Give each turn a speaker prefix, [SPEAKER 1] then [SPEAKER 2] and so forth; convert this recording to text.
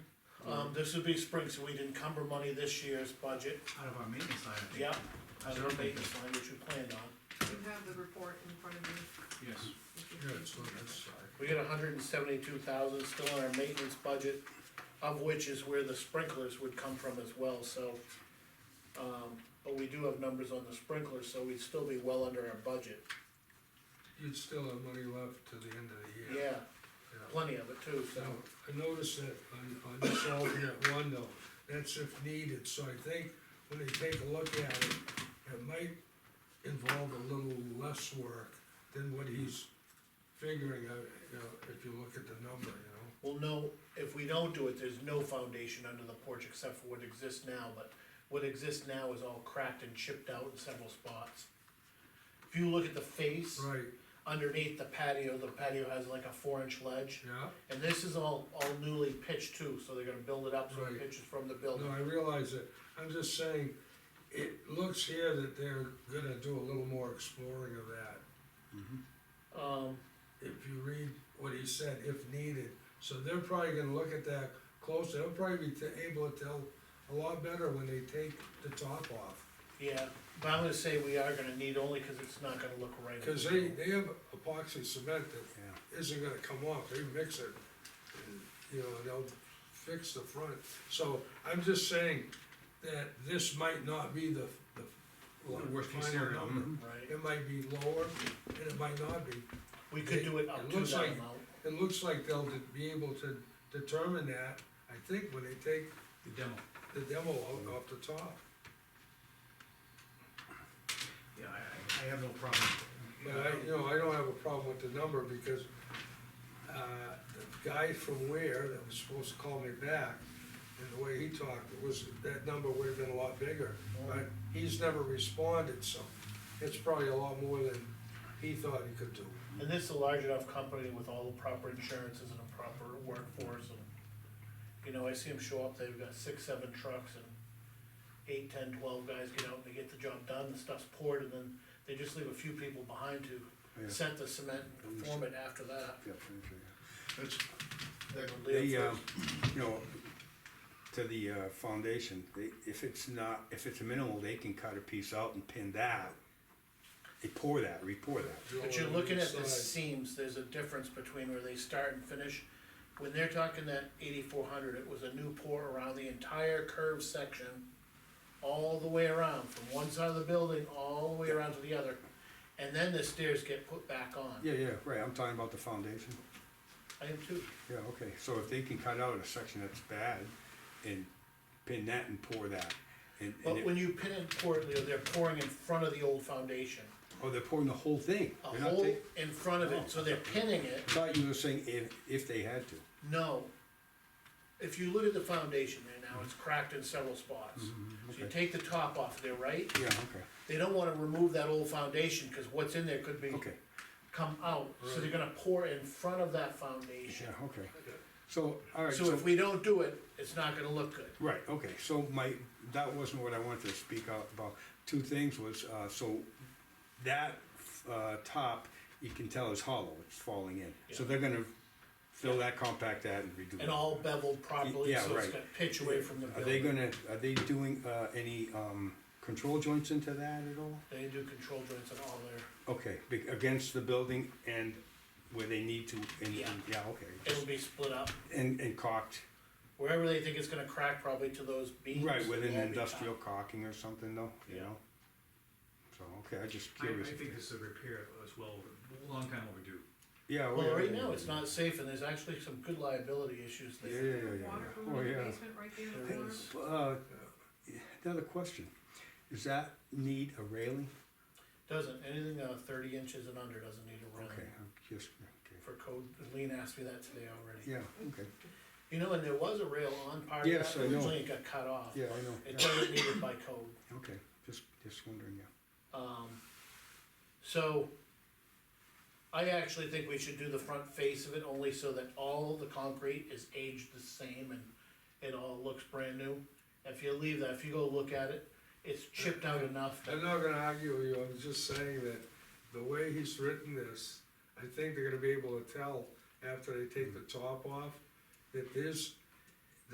[SPEAKER 1] Um, this would be spring, so we'd encumber money this year's budget,
[SPEAKER 2] out of our maintenance line, I think.
[SPEAKER 1] yeah, out of our maintenance line, which we planned on.
[SPEAKER 3] You have the report in front of you.
[SPEAKER 2] Yes,
[SPEAKER 3] if you-
[SPEAKER 4] Yeah, it's on that side.
[SPEAKER 1] We got hundred and seventy-two thousand still in our maintenance budget, of which is where the sprinklers would come from as well, so. Um, but we do have numbers on the sprinklers, so we'd still be well under our budget,
[SPEAKER 4] You'd still have money left to the end of the year.
[SPEAKER 1] yeah, plenty of it too, so.
[SPEAKER 4] Now, I noticed that on, on this alternate one though, that's if needed, so I think when they take a look at it, it might involve a little less work than what he's figuring out, you know, if you look at the number, you know?
[SPEAKER 1] Well, no, if we don't do it, there's no foundation under the porch except for what exists now, but what exists now is all cracked and chipped out in several spots. If you look at the face
[SPEAKER 4] Right,
[SPEAKER 1] underneath the patio, the patio has like a four inch ledge.
[SPEAKER 4] yeah,
[SPEAKER 1] And this is all, all newly pitched too, so they're gonna build it up, so the
[SPEAKER 4] Right.
[SPEAKER 1] pitch is from the building.
[SPEAKER 4] no, I realize it, I'm just saying, it looks here that they're gonna do a little more exploring of that.
[SPEAKER 1] Um,
[SPEAKER 4] if you read what he said, if needed. So they're probably gonna look at that closer, they'll probably be t- able to tell a lot better when they take the top off.
[SPEAKER 1] yeah, but I'm gonna say we are gonna need only cause it's not gonna look right.
[SPEAKER 4] Cause they, they have epoxy cement that isn't gonna come off, they mix it, and, you know, they'll fix the front. So I'm just saying that this might not be the, the.
[SPEAKER 2] Worst case
[SPEAKER 4] final
[SPEAKER 2] scenario,
[SPEAKER 4] number.
[SPEAKER 2] mhm.
[SPEAKER 1] Right,
[SPEAKER 4] It might be lower, and it might not be.
[SPEAKER 1] we could do it
[SPEAKER 4] It
[SPEAKER 1] up to
[SPEAKER 4] looks
[SPEAKER 1] that
[SPEAKER 4] like-
[SPEAKER 1] amount,
[SPEAKER 4] It looks like they'll be able to determine that, I think, when they take
[SPEAKER 2] the demo.
[SPEAKER 4] the demo
[SPEAKER 1] Mm-hmm.
[SPEAKER 4] out off the top.
[SPEAKER 2] Yeah, I, I- I have no problem.
[SPEAKER 4] But I, you know, I don't have a problem with the number because, uh, the guy from Ware that was supposed to call me back, and the way he talked, it was, that number would have been a lot bigger.
[SPEAKER 1] Mm-hmm.
[SPEAKER 4] But he's never responded, so it's probably a lot more than he thought he could do.
[SPEAKER 1] and this is a large enough company with all the proper insurances and a proper workforce and. You know, I see them show up, they've got six, seven trucks and eight, ten, twelve guys get out and they get the job done, the stuff's poured and then they just leave a few people behind
[SPEAKER 5] Yeah.
[SPEAKER 1] to set the cement and form it after that.
[SPEAKER 5] Yeah, thank you.
[SPEAKER 2] That's,
[SPEAKER 1] They're gonna leave
[SPEAKER 5] They,
[SPEAKER 1] for-
[SPEAKER 5] uh, you know, to the, uh, foundation, they, if it's not, if it's minimal, they can cut a piece out and pin that. They pour that, re-pour that.
[SPEAKER 1] But you're looking at the
[SPEAKER 4] Side.
[SPEAKER 1] seams, there's a difference between where they start and finish. When they're talking that eighty-four hundred, it was a new pour around the entire curved section, all the way around, from one side of the building, all the way around to the other. And then the stairs get put back on.
[SPEAKER 5] Yeah, yeah, right, I'm talking about the foundation.
[SPEAKER 1] I am too,
[SPEAKER 5] Yeah, okay, so if they can cut out a section that's bad and pin that and pour that. And, and,
[SPEAKER 1] but
[SPEAKER 5] it-
[SPEAKER 1] when you pin and pour, it, Leo, they're pouring in front of the old foundation,
[SPEAKER 5] oh, they're pouring the whole thing.
[SPEAKER 1] a
[SPEAKER 5] They're not
[SPEAKER 1] hole
[SPEAKER 5] take-
[SPEAKER 1] in front of it, so they're pinning it.
[SPEAKER 5] Thought you were saying if, if they had to.
[SPEAKER 1] No. If you look at the foundation there now, it's cracked in several spots. So you
[SPEAKER 5] Mm-hmm. okay.
[SPEAKER 1] take the top off there, right?
[SPEAKER 5] Yeah, okay,
[SPEAKER 1] They don't wanna remove that old foundation, cause what's in there could be,
[SPEAKER 5] okay.
[SPEAKER 1] come out, so they're gonna pour in front of that
[SPEAKER 5] Yeah,
[SPEAKER 1] foundation.
[SPEAKER 5] okay. So, all right.
[SPEAKER 1] So if we don't do it, it's not gonna look good.
[SPEAKER 5] Right, okay, so my, that wasn't what I wanted to speak out about. Two things was, uh, so that, uh, top, you can tell is hollow, it's falling in. So
[SPEAKER 1] Yeah.
[SPEAKER 5] they're gonna fill that, compact that and redo.
[SPEAKER 1] And all beveled properly,
[SPEAKER 5] Yeah,
[SPEAKER 1] so it's
[SPEAKER 5] right.
[SPEAKER 1] got pitch away from the
[SPEAKER 5] Are they
[SPEAKER 1] building.
[SPEAKER 5] gonna, are they doing, uh, any, um, control joints into that at all?
[SPEAKER 1] They do control joints and all there.
[SPEAKER 5] Okay, be- against the building and where they need to, and,
[SPEAKER 1] Yeah.
[SPEAKER 5] and- yeah, okay.
[SPEAKER 1] It'll
[SPEAKER 5] just-
[SPEAKER 1] be split up,
[SPEAKER 5] And, and caulked,
[SPEAKER 1] wherever they think it's gonna crack probably to those beams.
[SPEAKER 5] right, with an
[SPEAKER 1] it'll all be
[SPEAKER 5] industrial
[SPEAKER 1] top.
[SPEAKER 5] caulking or something though, you
[SPEAKER 1] Yeah.
[SPEAKER 5] know? So, okay, I just
[SPEAKER 2] I, I
[SPEAKER 5] curious. if
[SPEAKER 2] think
[SPEAKER 5] they-
[SPEAKER 2] this is a repair that was well, a long time overdue.
[SPEAKER 5] Yeah. oh,
[SPEAKER 1] Well,
[SPEAKER 5] yeah,
[SPEAKER 1] right
[SPEAKER 5] yeah,
[SPEAKER 1] now,
[SPEAKER 5] yeah,
[SPEAKER 1] it's
[SPEAKER 5] yeah.
[SPEAKER 1] not safe and there's actually some good liability issues
[SPEAKER 5] Yeah,
[SPEAKER 1] there.
[SPEAKER 5] yeah, yeah, yeah,
[SPEAKER 3] Water
[SPEAKER 5] yeah.
[SPEAKER 3] from
[SPEAKER 5] Oh,
[SPEAKER 3] the
[SPEAKER 5] yeah.
[SPEAKER 3] basement right there in the
[SPEAKER 1] There
[SPEAKER 3] corner.
[SPEAKER 1] is.
[SPEAKER 5] Uh, another question. Does that need a railing?
[SPEAKER 1] Doesn't, anything, uh, thirty inches and under doesn't need a
[SPEAKER 5] Okay,
[SPEAKER 1] railing
[SPEAKER 5] I'm just, okay.
[SPEAKER 1] for code, Lean asked me that today already.
[SPEAKER 5] Yeah, okay.
[SPEAKER 1] You know, and there was a rail on part of
[SPEAKER 5] Yes,
[SPEAKER 1] that,
[SPEAKER 5] I know.
[SPEAKER 1] originally it got cut off.
[SPEAKER 5] Yeah, I know.
[SPEAKER 1] It
[SPEAKER 5] Yeah,
[SPEAKER 1] doesn't need it by code,
[SPEAKER 5] Okay, just, just wondering, yeah.
[SPEAKER 1] um, so. I actually think we should do the front face of it only so that all the concrete is aged the same and it all looks brand new. If you leave that, if you go look at it, it's chipped out enough that,
[SPEAKER 4] I'm not gonna argue with you, I'm just saying that the way he's written this, I think they're gonna be able to tell after they take the top off, that there's